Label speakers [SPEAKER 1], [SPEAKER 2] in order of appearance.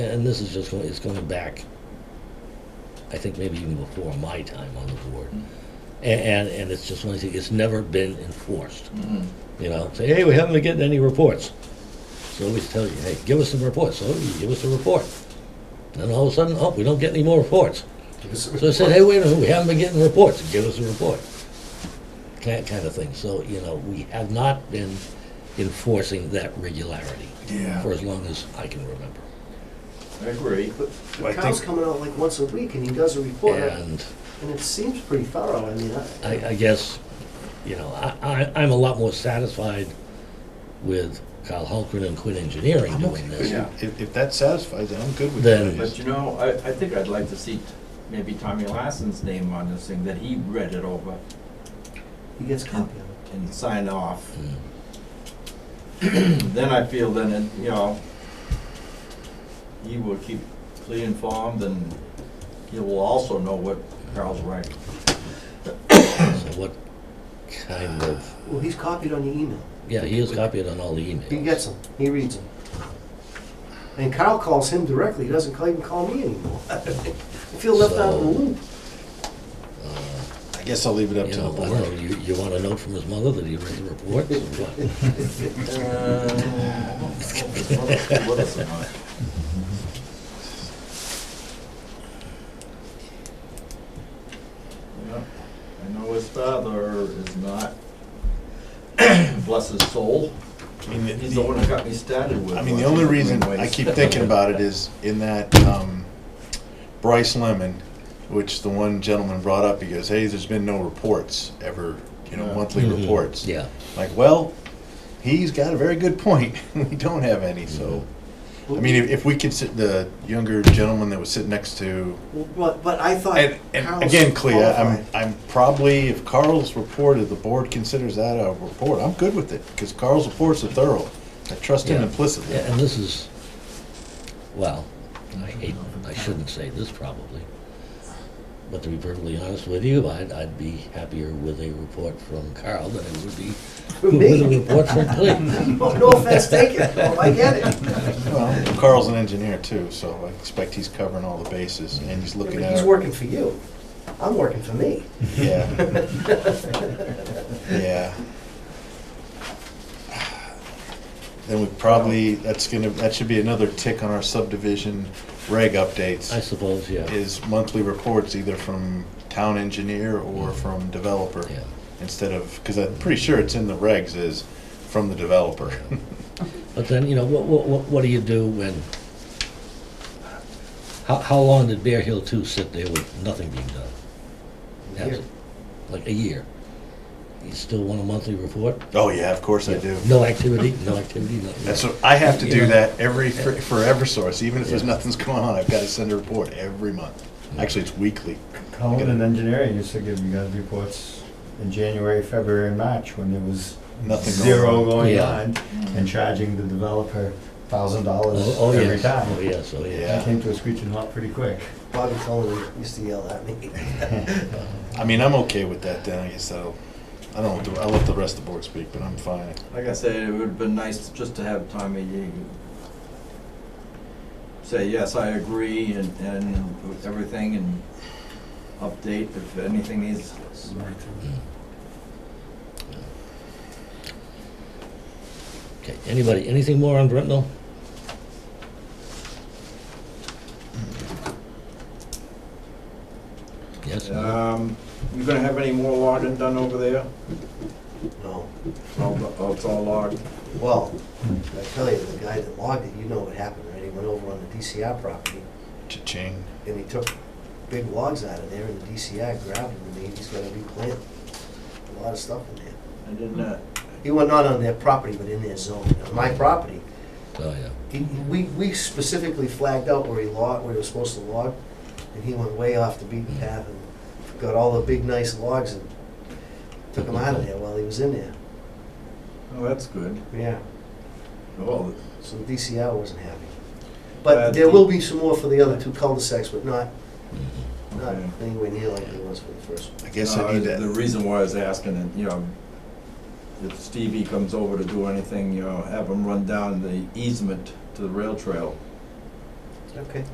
[SPEAKER 1] and this is just, going- it's going back, I think maybe even before my time on the board. A- And, and it's just one thing, it's never been enforced,
[SPEAKER 2] Mhm.
[SPEAKER 1] you know? Say, hey, we haven't been getting any reports. So we tell you, hey, give us some reports. So you give us a report. Then all of a sudden, oh, we don't get any more reports. So I said, hey, wait a minute, we haven't been getting reports, give us a report. That kind of thing. So, you know, we have not been enforcing that regularity
[SPEAKER 2] Yeah.
[SPEAKER 1] for as long as I can remember.
[SPEAKER 2] I agree.
[SPEAKER 3] But
[SPEAKER 2] I
[SPEAKER 3] the cow's
[SPEAKER 2] think-
[SPEAKER 3] coming out like once a week and he does a report, and
[SPEAKER 1] And
[SPEAKER 3] it seems pretty thorough, I mean, I,
[SPEAKER 1] I, I guess, you know, I, I, I'm a lot more satisfied with Kyle Holgren and Quinn Engineering doing this.
[SPEAKER 2] Yeah.
[SPEAKER 4] If, if that satisfies it, I'm good with
[SPEAKER 1] Then-
[SPEAKER 4] that.
[SPEAKER 2] But you know, I, I think I'd like to see t- maybe Tommy Lassen's name on this thing, that he read it over
[SPEAKER 3] he gets copy of it.
[SPEAKER 2] and sign off.
[SPEAKER 1] Mm.
[SPEAKER 2] Then I feel then, it you know, he will keep fully informed and he will also know what Carl's right.
[SPEAKER 1] So what kind of,
[SPEAKER 3] Well, he's copied on the email.
[SPEAKER 1] yeah, he is copied on all the
[SPEAKER 3] He
[SPEAKER 1] emails.
[SPEAKER 3] gets them, he reads them. And Kyle calls him directly, he doesn't call- even call me anymore. I feel left out of the
[SPEAKER 1] So-
[SPEAKER 3] loop.
[SPEAKER 4] I guess I'll leave it up
[SPEAKER 1] You
[SPEAKER 4] to the
[SPEAKER 1] know, I don't know,
[SPEAKER 4] board.
[SPEAKER 1] you, you want a note from his mother that he read the reports or what?
[SPEAKER 2] Well, I know his father is not, bless his soul,
[SPEAKER 4] I mean, the-
[SPEAKER 2] he's the one that got me started with.
[SPEAKER 4] I mean, the only reason I keep thinking about it is in that um, Bryce Lemon, which the one gentleman brought up, he goes, hey, there's been no reports ever, you know,
[SPEAKER 2] Yeah.
[SPEAKER 4] monthly
[SPEAKER 1] Mhm.
[SPEAKER 4] reports.
[SPEAKER 1] Yeah.
[SPEAKER 4] Like, well, he's got a very good point. We don't have any, so.
[SPEAKER 1] Mm-hmm.
[SPEAKER 4] I mean, if, if we could sit, the younger gentleman that was sitting next to
[SPEAKER 3] Well, But, but I thought
[SPEAKER 4] And,
[SPEAKER 3] Kyle's
[SPEAKER 4] and again, Clea, I'm,
[SPEAKER 3] qualified.
[SPEAKER 4] I'm probably, if Carl's report, if the board considers that a report, I'm good with it, because Carl's reports are thorough. I trust him
[SPEAKER 1] Yeah.
[SPEAKER 4] implicitly.
[SPEAKER 1] Yeah, and this is, well, I hate, I shouldn't say this probably, but to be perfectly honest with you, I'd, I'd be happier with a report from Carl than I would be
[SPEAKER 3] From
[SPEAKER 1] with a
[SPEAKER 3] me? Oh,
[SPEAKER 1] report from Clea.
[SPEAKER 3] No no offense taken, Well, I get it.
[SPEAKER 4] Well, Carl's an engineer too, so I expect he's covering all the bases, and he's
[SPEAKER 3] Yeah,
[SPEAKER 4] looking
[SPEAKER 3] but
[SPEAKER 4] at.
[SPEAKER 3] He's
[SPEAKER 4] our-
[SPEAKER 3] working for you, I'm working for me.
[SPEAKER 4] Yeah. Yeah. Then we probably, that's gonna, that should be another tick on our subdivision reg updates.
[SPEAKER 1] I suppose, yeah,
[SPEAKER 4] is monthly reports either from town engineer or from developer.
[SPEAKER 1] Mm-hmm. yeah.
[SPEAKER 4] Instead of, because I'm pretty sure it's in the regs is from the developer.
[SPEAKER 1] But then, you know, what, what, what- what do you do when, how, how long did Bear Hill Two sit there with nothing being done? That's-
[SPEAKER 3] Here.
[SPEAKER 1] Like a year. You still want a monthly report?
[SPEAKER 4] Oh, yeah, of course I do.
[SPEAKER 1] No activity, no activity, nothing.
[SPEAKER 4] That's, what- I have to
[SPEAKER 1] You know.
[SPEAKER 4] do that every, for for EverSource, even if there's
[SPEAKER 1] Yeah.
[SPEAKER 4] nothing's going on, I've got to send a report every month. Actually, it's weekly.
[SPEAKER 5] Colin and engineering used to give you guys reports in January, February, and March when there was
[SPEAKER 4] Nothing going
[SPEAKER 5] zero
[SPEAKER 4] on.
[SPEAKER 5] going
[SPEAKER 1] Yeah.
[SPEAKER 5] on and charging the developer thousand dollars
[SPEAKER 1] Oh, oh,
[SPEAKER 5] every
[SPEAKER 1] yes, oh,
[SPEAKER 5] time.
[SPEAKER 1] yes, oh, yes.
[SPEAKER 4] Yeah.
[SPEAKER 5] That came to a screeching halt pretty quick.
[SPEAKER 3] Bobby Cullen used to yell at me.
[SPEAKER 4] I mean, I'm okay with that then, I guess that'll, I don't, I'll let the rest of the board speak, but I'm fine.
[SPEAKER 2] Like I said, it would've been nice just to have Tommy you say, yes, I agree and, and with everything and update if anything needs.
[SPEAKER 1] Okay, anybody, anything more on Brittenell? Yes, no?
[SPEAKER 4] Uh,
[SPEAKER 2] Um, you gonna have any more logging done over there?
[SPEAKER 3] No,
[SPEAKER 2] All the- Oh, it's all logged?
[SPEAKER 3] well, I tell you, the guy that logged it, you know what happened, right? He went over on the DCI property
[SPEAKER 4] Cha-ching.
[SPEAKER 3] and he took big logs out of there and the DCI grabbed them and he's gonna replant a lot of stuff in there.
[SPEAKER 2] I didn't, uh,
[SPEAKER 3] He went not on their property, but in their zone, on my property.
[SPEAKER 1] Oh, yeah.
[SPEAKER 3] He, we, we specifically flagged out where he logged, where he was supposed to log, and he went way off the beaten path and got all the big nice logs and took them out of there while he was in there.
[SPEAKER 2] oh, that's good.
[SPEAKER 3] Yeah.
[SPEAKER 2] Well,
[SPEAKER 3] So the DCR wasn't happy.
[SPEAKER 2] Uh,
[SPEAKER 3] But there
[SPEAKER 2] the-
[SPEAKER 3] will be some more for the other two cul-de-sacs, but not, not
[SPEAKER 2] Okay.
[SPEAKER 3] anywhere near like there was for the first one.
[SPEAKER 4] I guess I
[SPEAKER 2] no,
[SPEAKER 4] need
[SPEAKER 2] Uh, The
[SPEAKER 4] to,
[SPEAKER 2] reason why I was asking, and, you know, if Stevie comes over to do anything, you know, have him run down the easement to the rail trail
[SPEAKER 3] Okay.